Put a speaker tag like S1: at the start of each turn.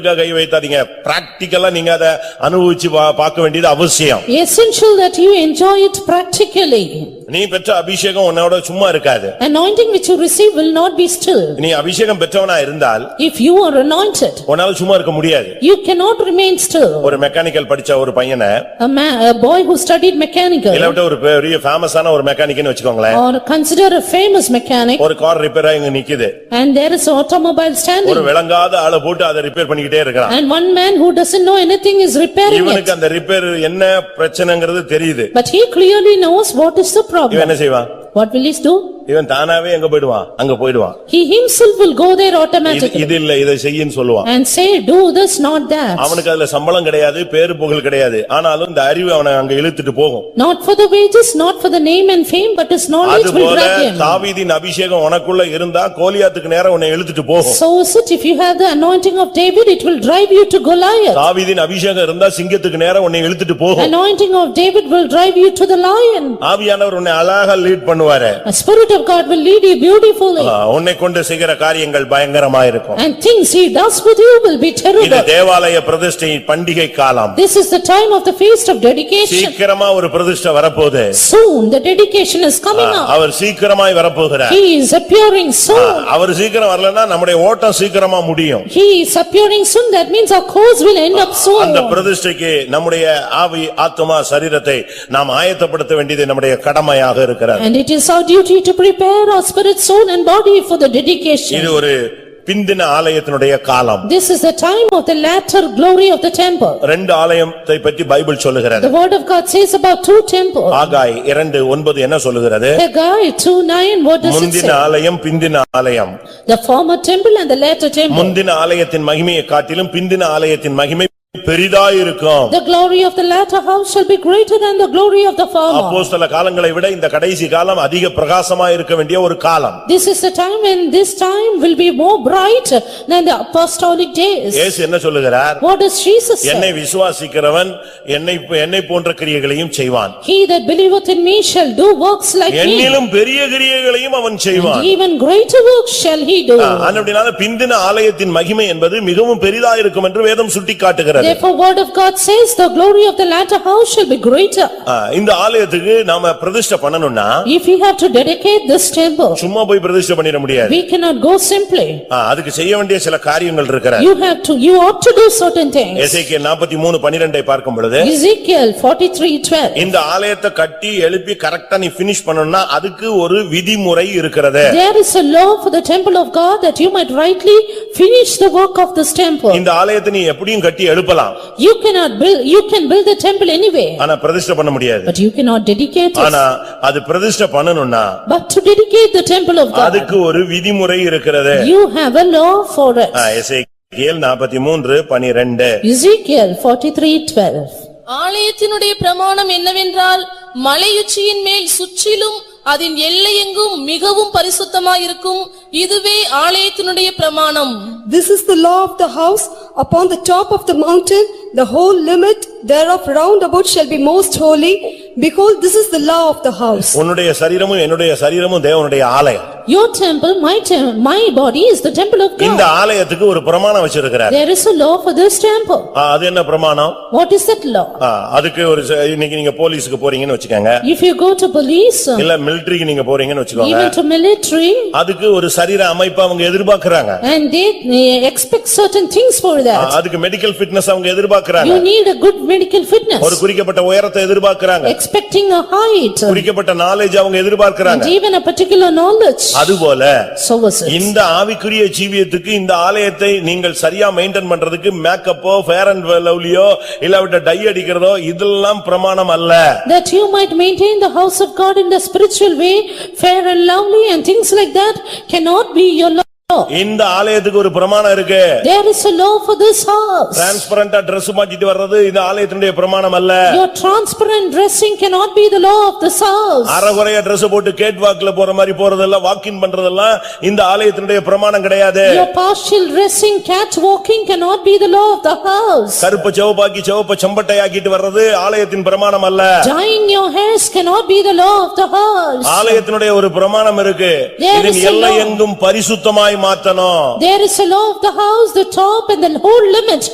S1: இதுல கை வைத்தாதீங்க பிராக்டிக்கலா நீங்க அதை அனுபவிச்சு பா- பார்க்க வேண்டியது அவசியம்
S2: Essential that you enjoy it practically.
S1: நீ பெற்ற அபிஷேகம் உன்னோட சும்மா இருக்காது
S2: Anointing which you receive will not be still.
S1: நீ அபிஷேகம் பெற்றவனா இருந்தால்
S2: If you are anointed,
S1: உன்னால சும்மா இருக்க முடியாது
S2: you cannot remain still.
S1: ஒரு மெக்கானிக்கல் படிச்ச ஒரு பையனை
S2: A man, a boy who studied mechanical
S1: இல்லாவிட்ட ஒரு பெரிய ஃபேமஸான ஒரு மெக்கானிக்னு வச்சுக்கோங்களேன்
S2: or consider a famous mechanic
S1: ஒரு கார் ரிப்பேரா இங்க நிக்குது
S2: and there is automobile
S1: ஒரு
S2: standing
S1: விளங்காத ஆளை போட்டு அதை ரிப்பேர் பண்ணிக்கிட்டே இருக்கான்
S2: and one man who doesn't know anything is repairing it.
S1: இவனுக்கு அந்த ரிப்பேர் என்ன பிரச்சனைங்கிறது தெரியுது
S2: But he clearly knows what is the
S1: இவன்
S2: problem.
S1: என்ன செய்வான்
S2: What will he do?
S1: இவன் தானாவே எங்க போயிடுவான் அங்க போயிடுவான்
S2: He himself will go there
S1: இது
S2: automatically
S1: இது இல்ல இதை செய்யின்னு சொல்லுவான்
S2: and say, "Do this, not that."
S1: அவனுக்கு அதுல சம்பளம் கிடையாது, பேரு புகழ் கிடையாது. ஆனாலும் இந்த அறிவு அவனை அங்க இழுத்துட்டு போகும்.
S2: Not for the wages, not for the name and fame, but his knowledge will
S1: அதுபோல
S2: grab him.
S1: தாவீதின் அபிஷேகம் உனக்குள்ள இருந்தா கோலியாத்துக்கு நேரா உன்னை இழுத்துட்டு போகும்.
S2: So is it, if you have the anointing of David, it will drive you to Goliath.
S1: தாவீதின் அபிஷேகம் இருந்தா சிங்கத்துக்கு நேரா உன்னை இழுத்துட்டு போகும்.
S2: Anointing of David will drive you to the lion.
S1: ஆவியானவர் உன்னை அழகா லீட் பண்ணுவாரு.
S2: The spirit of God will lead you beautifully
S1: ஆ, உன்னை கொண்டு செய்கிற காரியங்கள் பயங்கரமா இருக்கும்.
S2: and things he does with you will be
S1: இது
S2: terrible.
S1: தேவாலய பிரதிஷ்டை பண்டிகை காலம்.
S2: This is the time of the feast of dedication.
S1: சீக்கிரமா ஒரு பிரதிஷ்டை வரப்போகுது.
S2: Soon the dedication is
S1: ah,
S2: coming up.
S1: அவர் சீக்கிரமாய் வரப்போகிறார்.
S2: He is appearing
S1: ah,
S2: soon.
S1: அவர் சீக்கிரம் வரலன்னா நம்முடைய ஓட்டம் சீக்கிரமா முடியும்.
S2: He is appearing soon. That means our course will end up
S1: அந்த
S2: soon.
S1: பிரதிஷ்டைக்கு நம்முடைய ஆவி, ஆத்துமா, சரீரத்தை நாம் ஆயத்தப்படுத்த வேண்டியது நம்முடைய கடமையாக இருக்கிறது.
S2: And it is our duty to prepare our spirit, soul and body for the dedication.
S1: இது ஒரு பிந்தின ஆலயத்தினுடைய காலம்.
S2: This is the time of the latter glory of the temple.
S1: ரெண்டு ஆலயத்தை பற்றி பைபிள் சொல்லுகிறது.
S2: The word of God says about two temples.
S1: ஆகாய் இரண்டு ஒன்பது என்ன சொல்லுகிறது?
S2: Haggai two nine, what does it
S1: முந்தின
S2: say?
S1: ஆலயம், பிந்தின ஆலயம்.
S2: The former temple and the latter temple.
S1: முந்தின ஆலயத்தின் மகிமையை காட்டிலும் பிந்தின ஆலயத்தின் மகிமை பெரிதாயிருக்கும்.
S2: The glory of the latter house shall be greater than the glory of the former.
S1: அப்போஸ்தல காலங்களை விட இந்த கடைசி காலம் அதிக பிரகாசமா இருக்க வேண்டிய ஒரு காலம்.
S2: This is the time when this time will be more bright than the apostolic days.
S1: இயேசு என்ன சொல்லுகிறார்?
S2: What does Jesus say?
S1: என்னை விசுவாசிக்கிறவன் என்னை என்னை போன்ற கிரியைகளையும் செய்வான்.
S2: He that believeth in me shall do works like me.
S1: என்னிலும் பெரிய கிரியைகளையும் அவன் செய்வான்.
S2: Even greater works shall he do.
S1: Ah, அனுப்படினால பிந்தின ஆலயத்தின் மகிமை என்பது மிகவும் பெரிதா இருக்கும் என்று வேதம் சுட்டிக்காட்டுகிறது.
S2: Therefore word of God says, the glory of the latter house shall be greater.
S1: ஆ, இந்த ஆலயத்துக்கு நாம பிரதிஷ்டை பண்ணனும்னா
S2: If we have to dedicate this temple,
S1: சும்மா போய் பிரதிஷ்டை பண்ணிட முடியாது.
S2: we cannot go simply.
S1: ஆ, அதுக்கு செய்ய வேண்டிய சில காரியங்கள் இருக்கிறது.
S2: You have to, you ought to do certain things.
S1: Ezekiel 43 பனிரெண்டை பார்க்கும் பொழுது
S2: Ezekiel forty-three twelve.
S1: இந்த ஆலயத்தை கட்டி எழுப்பி கரெக்டா நீ பினிஷ் பண்ணனும்னா அதுக்கு ஒரு விதிமுறை இருக்கிறது.
S2: There is a law for the temple of God that you might rightly finish the work of this temple.
S1: இந்த ஆலயத்தை நீ எப்படியும் கட்டி எழுப்பலாம்.
S2: You cannot build, you can build the temple anyway,
S1: ஆனா பிரதிஷ்டை பண்ண முடியாது.
S2: but you cannot dedicate it.
S1: ஆனா அது பிரதிஷ்டை பண்ணனும்னா
S2: But to dedicate the temple of God,
S1: அதுக்கு ஒரு விதிமுறை இருக்கிறது.
S2: you have a law for it.
S1: ஆ, எசேக்கியேல் 43 பனிரெண்டு
S2: Ezekiel forty-three twelve.
S3: ஆலயத்தினுடைய பிரமாணம் என்னவென்றால் மலையுச்சியின் மேல் சுற்றிலும் அதன் எல்லையெங்கும் மிகவும் பரிசுத்தமாயிருக்கும் இதுவே ஆலயத்தினுடைய பிரமாணம்
S4: This is the law of the house, upon the top of the mountain, the whole limit thereof round about shall be most holy. Behold, this is the law of the house.
S1: உன்னுடைய சரீரமும் என்னுடைய சரீரமும் தேவனுடைய ஆலயம்.
S2: Your temple, my tem, my body is the temple of
S1: இந்த
S2: God.
S1: ஆலயத்துக்கு ஒரு பிரமாணம் வச்சிருக்கிறார்.
S2: There is a law for this temple.
S1: ஆ, அது என்ன பிரமாணம்?
S2: What is that law?
S1: ஆ, அதுக்கு ஒரு ச- இன்னைக்கு நீங்க போலீஸ்க்கு போறீங்கன்னு வச்சுக்கோங்க.
S2: If you go to police,
S1: இல்ல மிலிட்டரிக்கு நீங்க போறீங்கன்னு வச்சுக்கோங்க.
S2: even to military,
S1: அதுக்கு ஒரு சரீர அமைப்பு அவங்க எதிர்பார்க்கறாங்க.
S2: and they- they expect certain things for
S1: ah,
S2: that.
S1: அதுக்கு மெடிக்கல் ஃபிட்னஸ் அவங்க எதிர்பார்க்கறாங்க.
S2: You need a good medical
S1: ஒரு
S2: fitness,
S1: குறிக்கப்பட்ட உயரத்தை எதிர்பார்க்கறாங்க.
S2: expecting a height,
S1: குறிக்கப்பட்ட knowledge அவங்க
S2: and
S1: எதிர்பார்க்கறாங்க.
S2: even a particular knowledge.
S1: அதுபோல
S2: So was it.
S1: இந்த ஆவிக்குரிய ஜீவியத்துக்கு இந்த ஆலயத்தை நீங்கள் சரியா மெயின்டைன் பண்றதுக்கு மேக்கப்போ ஃபேர் அண்ட் லவ்லியோ இல்லாவிட்ட டை அடிக்கிறதோ இதெல்லாம் பிரமாணம் அல்ல
S2: That you might maintain the house of God in the spiritual way, fair and lovely and things like that cannot be your law.
S1: இந்த ஆலயத்துக்கு ஒரு பிரமாணம் இருக்கு
S2: There is a law for this house.
S1: டிரான்ஸ்பரண்டா ட்ரெஸ் மாட்டிட்டு வர்றது இந்த ஆலயத்தினுடைய பிரமாணம் அல்ல
S2: Your transparent dressing cannot be the law of this house.
S1: அறகுறையா Dress போட்டு கேட் வாக்ல போற மாதிரி போறதெல்லாம் வாக்கின் பண்றதெல்லாம் இந்த ஆலயத்தினுடைய பிரமாணம் கிடையாது
S2: Your partial dressing, catwalking cannot be the law of the house.
S1: கருப்ப சிவப்பாக்கி சிவப்ப செம்பட்டை ஆக்கிட்டு வர்றது ஆலயத்தின் பிரமாணம் அல்ல
S2: Dyeing your hairs cannot be the law of the house.
S1: ஆலயத்தினுடைய ஒரு பிரமாணம் இருக்கு
S2: There
S1: இதன்
S2: is a law.
S1: எல்லை எங்கும் பரிசுத்தமாய் மாத்தணும்
S2: There is a law of the house, the top and the whole limit